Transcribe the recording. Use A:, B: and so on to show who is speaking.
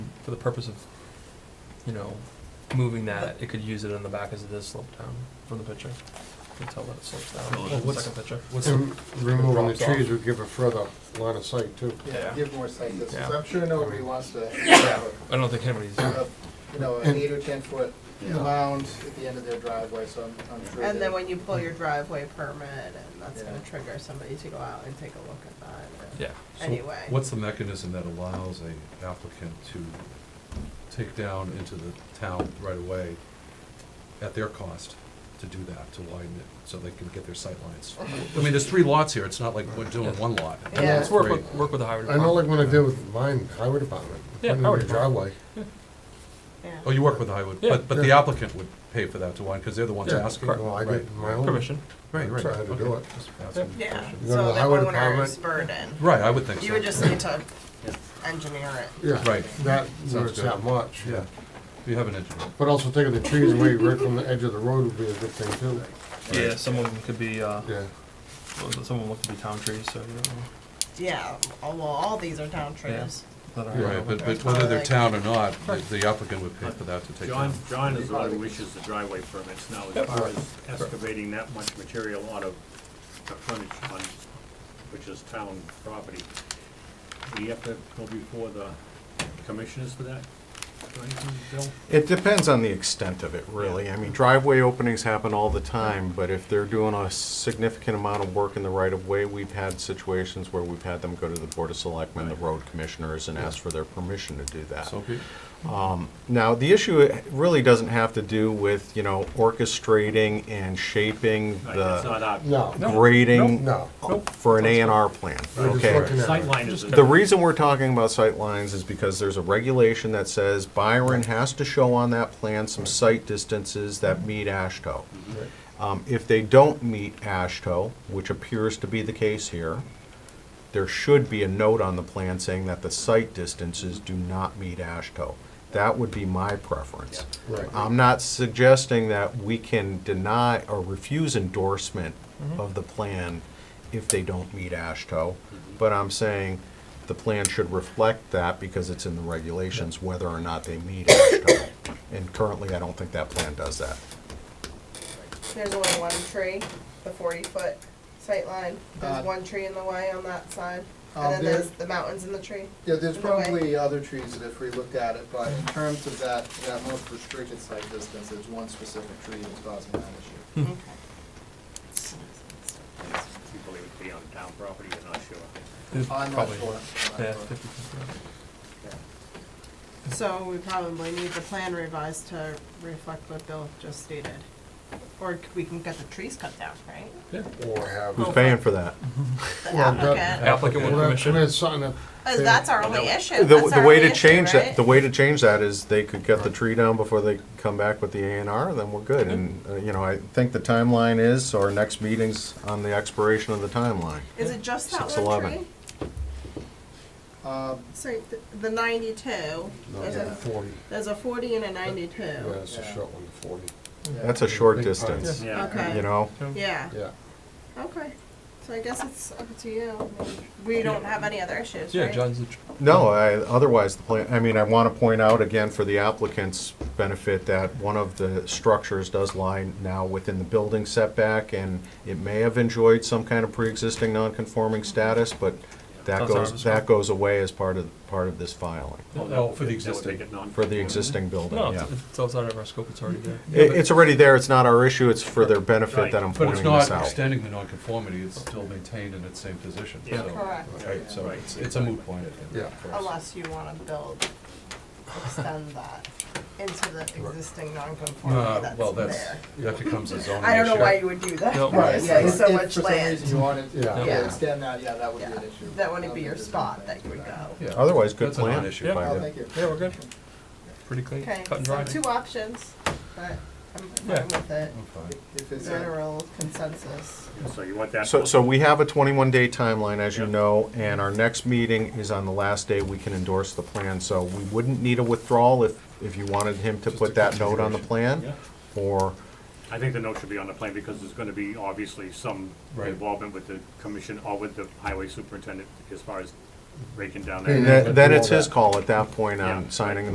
A: for the purpose of, you know, moving that, it could use it on the back as it is sloped down from the picture. You can tell that it slopes down.
B: Oh,
C: Well,
A: from the
D: what's-
A: second picture.
D: What's the-
B: And removing the
A: Drops off.
B: trees would give a further line of sight too.
A: Yeah.
E: Give more site distance.
A: Yeah.
E: I'm sure nobody wants to have
A: I don't think anybody's,
E: a, a, you know, an eight or ten foot
C: Yeah.
E: mound at the end of their driveway, so I'm, I'm sure.
F: And
E: that-
F: then when you pull your driveway permit, and that's gonna
E: Yeah.
F: trigger somebody to go out and take a look at that.
A: yeah.
D: so
F: Anyway.
D: What's the mechanism that allows a applicant to take down into the town right away at their cost to do that, to widen it, so they can get their sightlines? I mean, there's three lots here, it's not like we're doing one lot.
F: Yeah.
A: Let's work
D: Three.
A: with, work with the highway
B: I know like
A: department.
B: when I did with mine, highway department,
A: Yeah,
B: putting in
A: highway
B: the
A: department.
B: driveway.
F: Yeah.
D: Oh, you work with the highway,
A: Yeah.
D: but, but the
B: Yeah.
D: applicant would pay for that to widen, because they're the ones
A: Yeah,
D: asking.
A: correct.
B: Well, I
D: Right.
B: did my own.
A: Permission.
D: Right, right.
B: That's how I had to do
D: okay.
B: it.
D: Just asking the
F: Yeah,
D: question.
B: You go to
F: so
B: the
F: the
B: highway
F: owner's
B: department.
F: burden.
D: Right, I would think so.
F: You would just need to engineer it.
B: Yeah,
D: Right.
B: that,
D: Sounds
B: it's that
D: good.
B: much.
D: Yeah, you have an engineer.
B: But also taking the trees away right from the edge of the road would be a good thing too.
A: Yeah, some of them could be, uh,
B: Yeah,
A: some of them look to be town trees, so, you know,
F: Yeah, all- well, all these are town trees.
A: that are.
D: Right, but, but whether they're town or not, the- the applicant would pay for that to take
C: John,
D: down.
C: John is the one who issues the driveway permits now, as far as excavating that much material out of the frontage on, which is town property. Do you have to go before the commissioners for that? Or anything, Bill?
G: It depends on the extent of it, really. I mean, driveway openings happen all the time, but if they're doing a significant amount of work in the right-of-way, we've had situations where we've had them go to the Board of Selectmen, the road commissioners, and ask for their permission to do that.
D: So, be-
G: Now, the issue really doesn't have to do with, you know, orchestrating and shaping
C: Right, It's
G: the
C: not our.
B: no,
G: grading
B: no.
G: for an A and R plan,
B: We're just
G: okay?
B: looking at it.
C: Sightline is.
G: The reason we're talking about sight lines is because there's a regulation that says Byron has to show on that plan some sight distances that meet ASHTO. Um, If they don't meet ASHTO, which appears to be the case here, there should be a note on the plan saying that the sight distances do not meet ASHTO. That would be my preference.
B: Right.
D: Um,
G: I'm not suggesting that we can deny or refuse endorsement of the plan if they don't meet ASHTO, but I'm saying the plan should reflect that because it's in the regulations, whether or not they meet ASHTO. And currently, I don't think that plan does that.
F: There's only one tree, the forty foot sight line.
E: Uh,
F: There's one tree in the way on that side.
E: Um,
F: And then
E: there-
F: there's the mountains and the tree.
E: Yeah, there's
F: in the way.
E: probably other trees that if we looked at it, but in terms of that, that most restricted site distance, there's one specific tree that's causing that issue.
C: You believe it to be on town property, you're not sure.
A: It's
E: I'm not
A: probably-
E: sure. I'm
A: Yeah,
E: not sure.
A: 50%.
E: Yeah.
F: So we probably need the plan revised to reflect what Bill just stated. Or c- we can get the trees cut down, right?
B: Or have.
G: Who's paying for that?
F: The
B: Well, that-
F: applicant.
A: Applicant with
B: Well, that's-
A: permission.
B: that's something that-
F: As Uh, that's our only issue.
G: The,
F: That's
G: the
F: our
G: way
F: only
G: to
F: issue,
G: change that,
F: right?
G: the way to change that is they could cut the tree down before they come back with the A and R, then we're good. And, uh, you know, I think the timeline is, our next meeting's on the expiration of the timeline.
F: Is it just that
G: Six
F: one
G: eleven.
F: tree?
E: Um,
F: So th- the ninety-two,
B: No,
F: there's a,
B: forty,
F: there's a forty and a
B: yeah,
F: ninety-two.
B: it's a
E: Yeah.
B: short one, forty,
E: yeah.
G: That's a short
B: Big
G: distance,
B: pines.
C: Yeah.
F: Okay.
G: you know?
F: Yeah,
B: yeah.
F: okay. So I guess it's up to you. We don't have any other issues,
A: Yeah,
F: right?
A: John's, the tr-
G: No, I, otherwise, the plan, I mean, I want to point out again for the applicant's benefit that one of the structures does lie now within the building setback, and it may have enjoyed some kind of pre-existing non-conforming status, but that
A: That's ours
G: goes,
A: as well.
G: that goes away as part of, part of this filing,
D: Oh, for the
C: That would
D: existing.
C: make it non.
G: for the existing building,
A: no,
G: yeah.
A: it's- it's outside of our scope, it's already there.
G: It, it's already there, it's not our issue, it's for their benefit that I'm
D: But it's
G: pointing
D: not
G: this out.
D: extending the nonconformity, it's still maintained in its same position,
C: Yeah.
D: so.
F: Correct.
D: Right, so it's, it's a moot point, I think.
B: Yeah.
D: for us.
F: Unless you wanna build, extend that into the existing non-conformity
D: Uh,
F: that's
D: well, that's,
F: there.
D: that becomes a zoning
F: I don't know
D: issue.
F: why you would do that.
A: No.
E: Right,
F: It's
E: yeah,
F: like
E: if
F: so
E: if
F: much
E: for some reason
F: land.
E: you wanted
B: Yeah.
E: to
F: Yeah.
E: extend that, yeah, that would be an
F: Yeah.
E: issue.
F: That wouldn't
E: I
F: be
E: don't
F: your
E: think there's
F: spot that
E: anything
F: you would
E: to
F: go.
D: Yeah.
G: Otherwise, good
D: That's a
G: plan.
D: non-issue
A: Yeah.
G: by
E: Oh,
G: the-
E: thank you.
A: Yeah, we're good. Pretty clean,
F: Okay,
A: cut and
F: so
A: dry.
F: two options, but I'm
A: Yeah.
F: fine with it.
D: I'm fine.
E: If it's, a-
F: General consensus.
C: So you want that.
G: So, so we have a twenty-one day timeline, as you
C: Yeah.
G: know, and our next meeting is on the last day we can endorse the plan, so we wouldn't need a withdrawal if, if you wanted him to
D: Just a
G: put that note on the
C: Yeah.
G: plan, or,
C: I think the note should be on the plan because there's gonna be obviously some
D: Right.
C: involvement with the commission or with the highway superintendent as far as breaking down
B: Yeah,
C: that.
G: then then it's
B: Withdraw
G: his
B: that.
G: call at that point
C: Yeah.
G: on signing